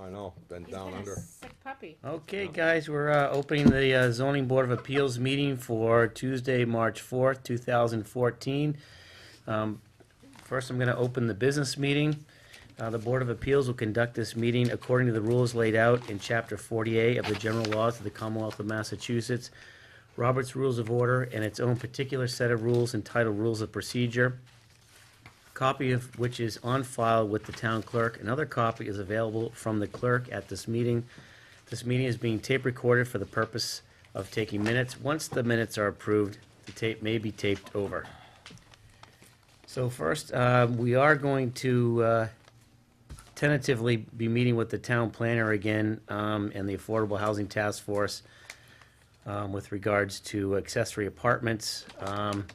I know, been He's down been a under. Sick puppy. Okay, guys, we're uh, opening the uh, zoning board of appeals meeting for Tuesday, March fourth, two thousand fourteen. Um, First, I'm going to open the business meeting. Uh, The Board of Appeals will conduct this meeting according to the rules laid out in Chapter forty-eight of the General Laws of the Commonwealth of Massachusetts, Robert's Rules of Order, and its own particular set of rules entitled Rules of Procedure, copy of which is on file with the town clerk. Another copy is available from the clerk at this meeting. This meeting is being tape recorded for the purpose of taking minutes. Once the minutes are approved, the tape may be taped over. So first, uh, we are going to uh, tentatively be meeting with the town planner again um, and the Affordable Housing Task Force um, with regards to accessory apartments. Um,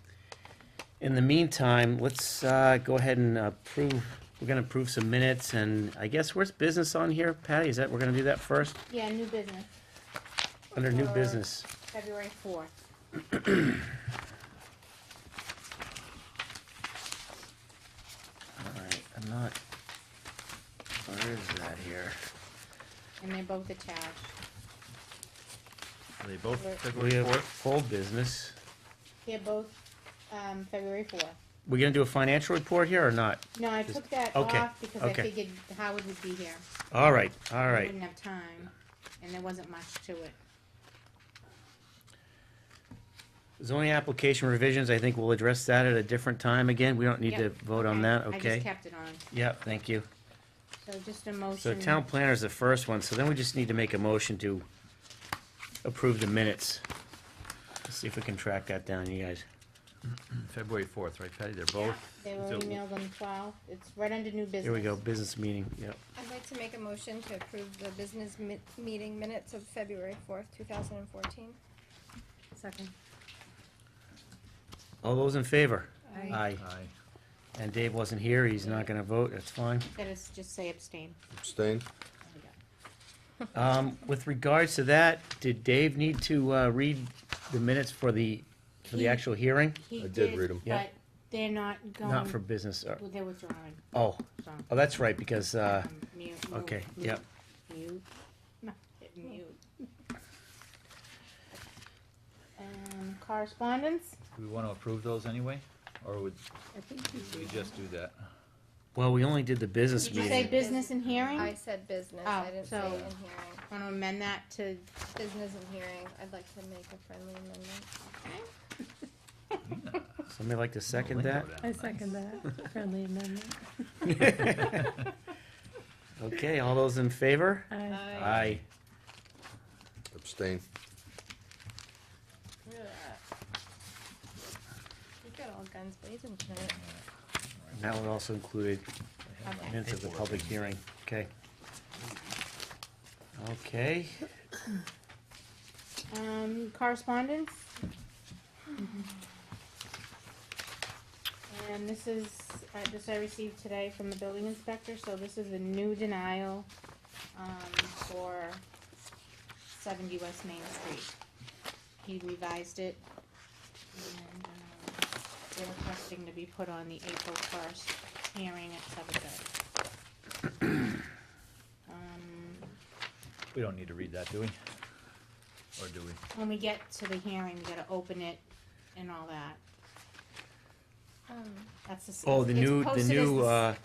In the meantime, let's uh, go ahead and approve, we're going to approve some minutes, and I guess where's business on here, Patty? Is that, we're going to do that first? Yeah, new business, Under new Or- business. February fourth. All right, I'm not, where is that here? And they're both attached. Are they both Right. We February have fourth? full business. They're both, um, February fourth. We're gonna do a financial report here or not? No, I Just- took that okay, off because I okay. figured Howard would be here. All right, all We right. Wouldn't have time, and there wasn't much to it. Zoning application revisions, I think we'll address that at a different time again. We don't need to Yep, vote on okay. that, I just okay? kept it on, Yeah, thank you. so just a So motion. town planner is the first one, so then we just need to make a motion to approve the minutes. Let's see if we can track that down, you guys. February fourth, right, Patty? They're Yeah, both. They were So- emailed on the twelfth, it's right under new business. Here we go, business meeting, yep. I'd like to make a motion to approve the business mi- meeting minutes of February fourth, two thousand and fourteen. Second. All those in favor? Aye. Aye. Aye. And Dave wasn't here, he's not gonna vote, that's fine. Gotta s- just say abstain. Abstain? There we go. Um, with regards to that, did Dave need to, uh, read the minutes for the, for the He- actual hearing? He I did read 'em. Yeah. But they're not going. Not for business, or, Well, They're withdrawing, oh, so. oh, that's right, because, uh, um, mute, move, okay, mute, yep. Mute, No, hit mute. Um, correspondence? Do we want to approve those anyway, or would I think we just do that? well, we only did the business Did you say meeting. business and hearing? I I said business, Oh, I didn't say in so- hearing. wanna amend that to, Business and hearing, I'd like to make a friendly amendment. Somebody like to second that? I second that, friendly amendment. Okay, all those in favor? I Uh, Aye. Abstain. We got all guns blazing tonight. And that one also included okay, minutes of the public hearing, okay. Okay, um, correspondence? And this is, uh, this I received today from the building inspector, so this is a new denial, um, for seventy West Main Street. He revised it, and, um, they're requesting to be put on the April first hearing at seven thirty. Um, We don't need to read that, do we? Or do we? when we get to the hearing, we gotta open it and all that. Um, That's the. s- oh, the it's new, the posted as new, s- uh,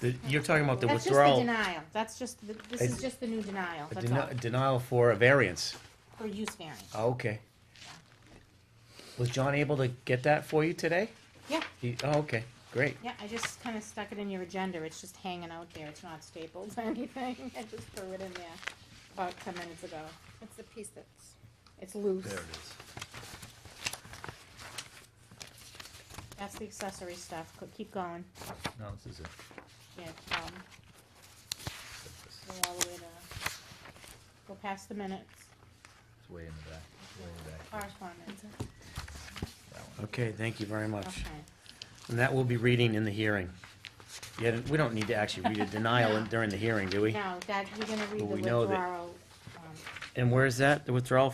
the, you're talking about the That's just the withdrawal. denial, that's just, the- this It's- is just the new denial, a that's all, deni- Denial for a variance. for use variance. Oh, okay. Was John able to get that for you today? Yeah, He, oh, okay, great. yeah, I just kinda stuck it in your agenda, it's just hanging out there, it's not stapled or anything, I just threw it in there about ten minutes ago, It's the piece that's, it's loose. There it is. That's the accessory stuff, Go- keep going, No, this is it. yeah, um, go all the way to, go past the minutes, It's way in the back, way in the back. correspondence, That one. Okay, thank you very much. okay. And that will be reading in the hearing. Yeah, we don't need to actually read a denial in- during the hearing, do we? No, that, we're gonna read But the we know that- withdrawal, um, And where is that, the withdrawal